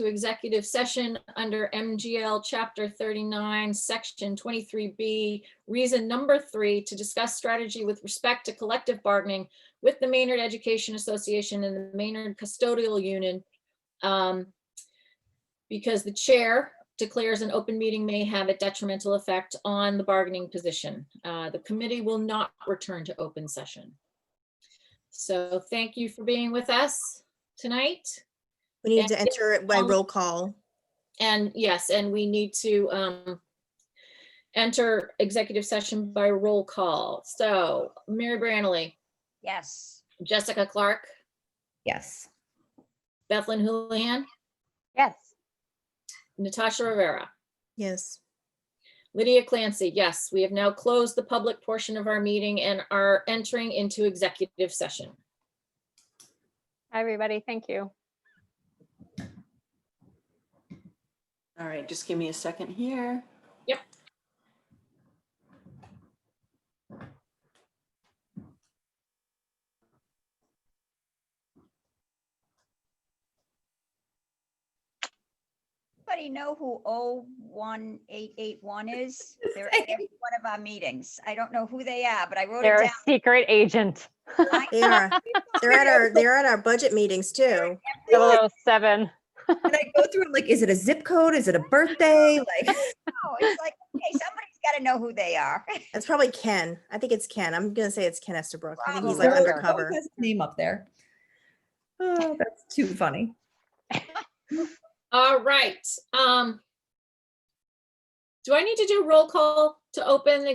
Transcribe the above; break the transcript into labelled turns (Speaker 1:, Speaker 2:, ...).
Speaker 1: to executive session under MGL Chapter 39, Section 23B, reason number three, to discuss strategy with respect to collective bargaining with the Maynard Education Association and the Maynard Custodial Union. um, Because the chair declares an open meeting may have a detrimental effect on the bargaining position. Uh, The committee will not return to open session. So thank you for being with us tonight.
Speaker 2: We need to
Speaker 1: And-
Speaker 2: enter it by
Speaker 1: um,
Speaker 2: roll call.
Speaker 1: And yes, and we need to um enter executive session by roll call. So Mary Branley,
Speaker 3: Yes.
Speaker 1: Jessica Clark,
Speaker 4: Yes.
Speaker 1: Bethlyn Houlihan,
Speaker 3: Yes.
Speaker 1: Natasha Rivera,
Speaker 2: Yes.
Speaker 1: Lydia Clancy. Yes, we have now closed the public portion of our meeting and are entering into executive session.
Speaker 5: Hi, everybody. Thank you.
Speaker 6: All right, just give me a second here.
Speaker 1: Yep.
Speaker 3: Anybody know who O one eight eight one is? They're at every one of our meetings. I don't know who they are, but I wrote
Speaker 5: They're
Speaker 3: it
Speaker 5: a secret agent.
Speaker 3: down.
Speaker 2: They are. They're at our, they're at our budget meetings too.
Speaker 5: 007.
Speaker 4: And I go through like, is it a zip code? Is it a birthday? Like,
Speaker 3: Oh, It's like, okay, somebody's got to know who they are.
Speaker 2: It's probably Ken. I think it's Ken. I'm gonna say it's Ken Estabrook. I think he's like
Speaker 3: Probably.
Speaker 4: Always
Speaker 2: undercover.
Speaker 4: has his Name up there. Oh, that's too funny.
Speaker 1: All right. um, Do I need to do roll call to open the